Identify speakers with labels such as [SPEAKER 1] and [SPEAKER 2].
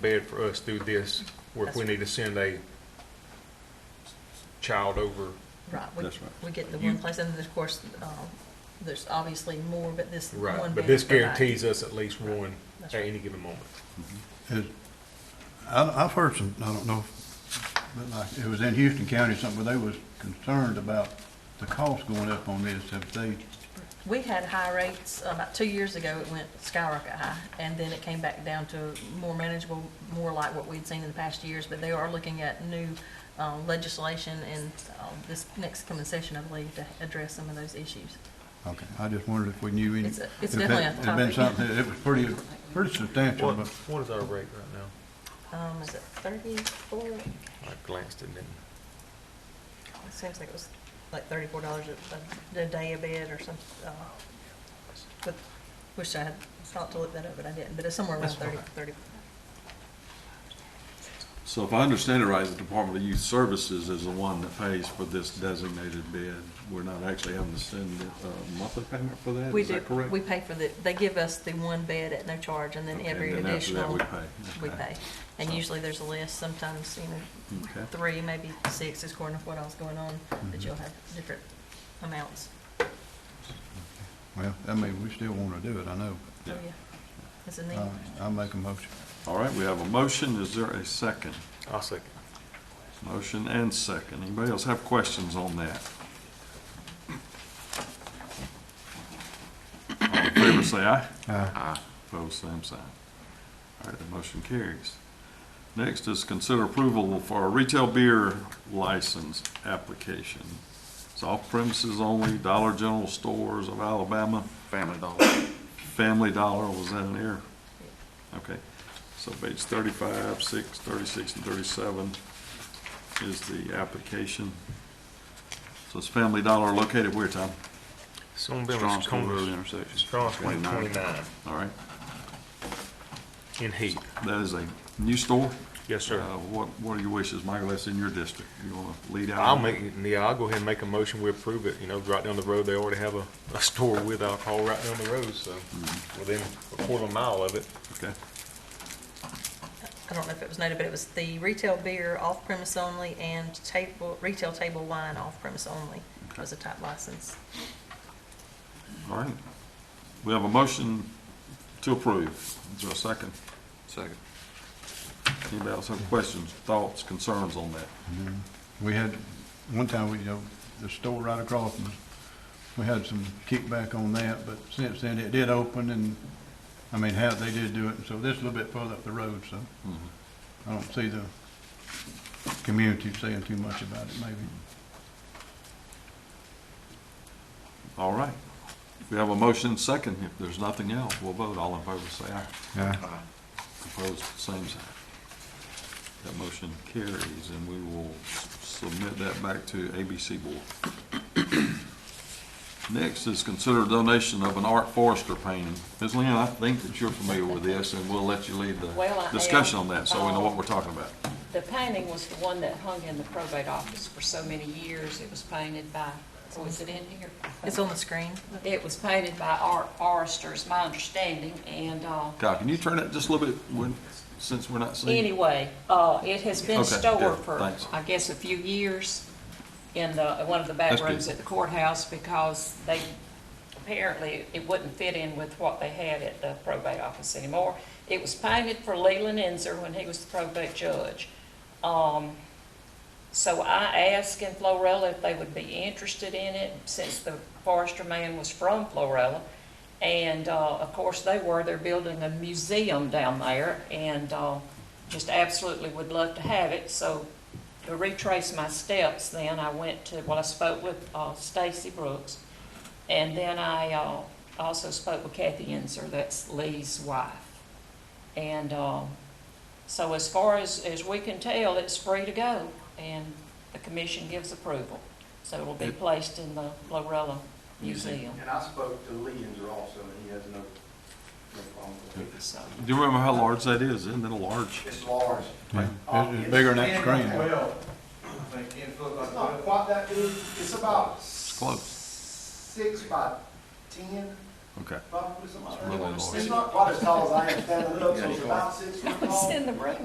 [SPEAKER 1] bed for us through this, where if we need to send a child over,
[SPEAKER 2] Right, we,
[SPEAKER 3] That's right.
[SPEAKER 2] we get the
[SPEAKER 1] You-
[SPEAKER 2] one place, and then of course, um, there's obviously more, but this one.
[SPEAKER 1] right, but
[SPEAKER 2] bed
[SPEAKER 1] this
[SPEAKER 2] provides-
[SPEAKER 1] guarantees us at least one
[SPEAKER 2] That's
[SPEAKER 1] at
[SPEAKER 2] right.
[SPEAKER 1] any given moment.
[SPEAKER 3] Mhm.
[SPEAKER 4] I, I've heard some, I don't know, but like, it was in Houston County, something where they was concerned about the cost going up on this, if they,
[SPEAKER 2] We had high rates, uh, about two years ago, it went skyrocket high, and then it came back down to more manageable, more like what we'd seen in the past years, but they are looking at new, um, legislation and, um, this next coming session, I believe, to address some of those issues.
[SPEAKER 4] okay, I just wondered if we knew any.
[SPEAKER 2] It's a- it's
[SPEAKER 4] if that-
[SPEAKER 2] definitely a
[SPEAKER 4] It'd been
[SPEAKER 2] topic.
[SPEAKER 4] something, that- it was pretty, pretty substantial,
[SPEAKER 1] What,
[SPEAKER 4] but
[SPEAKER 1] what is our rate right now?
[SPEAKER 2] Um, is it thirty-four?
[SPEAKER 1] I glanced at it.
[SPEAKER 2] It seems like it was like thirty-four dollars a, a day a bed or some, uh, but, wish I had thought to look that up, but I didn't, but it's somewhere around
[SPEAKER 1] That's
[SPEAKER 2] thirty,
[SPEAKER 1] all right.
[SPEAKER 2] thirty.
[SPEAKER 3] So if I understand it right, the Department of Youth Services is the one that pays for this designated bid. We're not actually having to send a monthly payment for that,
[SPEAKER 2] We
[SPEAKER 3] is
[SPEAKER 2] do,
[SPEAKER 3] that correct?
[SPEAKER 2] we pay for the, they give us the one bed at no charge, and then
[SPEAKER 3] Okay,
[SPEAKER 2] every
[SPEAKER 3] and then after that
[SPEAKER 2] additional,
[SPEAKER 3] we
[SPEAKER 2] we
[SPEAKER 3] pay,
[SPEAKER 2] pay.
[SPEAKER 3] okay.
[SPEAKER 2] And
[SPEAKER 3] So-
[SPEAKER 2] usually there's a list, sometimes, you know,
[SPEAKER 3] Okay. Mm-hmm.
[SPEAKER 2] three, maybe six, is according to what else going on, but you'll have different amounts.
[SPEAKER 4] well, I mean, we still want to do it, I know.
[SPEAKER 2] So,
[SPEAKER 3] Yeah.
[SPEAKER 2] yeah, It's a
[SPEAKER 4] but,
[SPEAKER 2] need.
[SPEAKER 4] uh, I'll make a motion.
[SPEAKER 3] All right, we have a motion. Is there a second?
[SPEAKER 1] I'll second.
[SPEAKER 3] Motion and second. Anybody else have questions on that? All in favor, say aye. Aye. Opposed, same sign. All right, the motion carries. Next is consider approval for a retail beer license application. It's off premises only, Dollar General Stores of Alabama.
[SPEAKER 5] Family Dollar.
[SPEAKER 3] Family Dollar, was that an error? Okay, so page thirty-five, six, thirty-six, and thirty-seven is the application. So it's Family Dollar located where, Tom?
[SPEAKER 1] Some
[SPEAKER 5] Strong's Corner Road intersection.
[SPEAKER 1] Strong's Corner 29
[SPEAKER 3] All right,
[SPEAKER 1] in Heath.
[SPEAKER 3] that is a new store?
[SPEAKER 1] Yes, sir.
[SPEAKER 3] Uh, What, what are your wishes, Michael, that's in your district, you wanna lead out?
[SPEAKER 1] I'll make, yeah, I'll go ahead and make a motion, we approve it, you know, right down the road, they already have a, a store with alcohol right down the road, so within a quarter mile of it.
[SPEAKER 3] Okay,
[SPEAKER 2] I don't know if it was noted, but it was the retail beer off-premise only and table, retail table wine off-premise only
[SPEAKER 3] Okay.
[SPEAKER 2] was a type license.
[SPEAKER 3] all right. We have a motion to approve, is there a second?
[SPEAKER 5] Second.
[SPEAKER 3] Anybody else have questions, thoughts, concerns on that?
[SPEAKER 4] Mm-hmm. We had, one time, we, you know, the store right across from us, we had some kickback on that, but since then, it did open and, I mean, how, they did do it, and so this is a little bit further up the road, so
[SPEAKER 3] Mhm.
[SPEAKER 4] I don't see the community saying too much about it, maybe.
[SPEAKER 3] All right. We have a motion second. If there's nothing else, we'll vote. All in favor, say aye.
[SPEAKER 4] Yeah.
[SPEAKER 5] Aye.
[SPEAKER 3] Opposed, same sign. That motion carries, and we will submit that back to ABC Board. Next is consider donation of an Art Forrester painting. Ms. Lynn, I think that you're familiar with this, and we'll let you lead
[SPEAKER 6] Well, I
[SPEAKER 3] the
[SPEAKER 6] am. Um,
[SPEAKER 3] discussion on that, so we know what we're talking about.
[SPEAKER 6] The painting was the one that hung in the probate office for so many years. It was painted by, was it in here?
[SPEAKER 2] It's on the screen.
[SPEAKER 6] It was painted by Art Forrester, is my understanding, and, uh,
[SPEAKER 3] Kyle, can you turn it just a little bit, when- since we're not seeing?
[SPEAKER 6] anyway, uh, it has been
[SPEAKER 3] Okay, good,
[SPEAKER 6] stored for,
[SPEAKER 3] thanks.
[SPEAKER 6] I guess, a few years in the, one of the back
[SPEAKER 3] That's good.
[SPEAKER 6] rooms at the courthouse because they, apparently, it wouldn't fit in with what they had at the probate office anymore. It was painted for Leland Enzer when he was the probate judge. Um, So I asked in Florella if they would be interested in it, since the forester man was from Florella. And, uh, of course, they were, they're building a museum down there, and, uh, just absolutely would love to have it, so to retrace my steps, then I went to, well, I spoke with, uh, Stacy Brooks, and then I, uh, also spoke with Kathy Enzer, that's Lee's wife. And, um, so as far as, as we can tell, it's free to go, and the commission gives approval. So it'll be placed in the Glorilla Museum,
[SPEAKER 7] And I spoke to Leander also, and he has no, no problem with it.
[SPEAKER 6] so.
[SPEAKER 3] Do you remember how large that is? Isn't it a large?
[SPEAKER 7] It's large.
[SPEAKER 4] Yeah,
[SPEAKER 7] Uh,
[SPEAKER 4] It's it's bigger than that
[SPEAKER 7] ten
[SPEAKER 4] screen.
[SPEAKER 7] by Twelve, I think, ten foot by twelve. It's not quite that big, it's about.
[SPEAKER 3] close.
[SPEAKER 7] Six by ten,
[SPEAKER 3] Okay.
[SPEAKER 7] Probably something like
[SPEAKER 5] Really
[SPEAKER 7] that.
[SPEAKER 5] large.
[SPEAKER 7] It's not quite as tall as I am standing up, so it's about six feet
[SPEAKER 6] It's
[SPEAKER 7] tall.
[SPEAKER 6] in the room.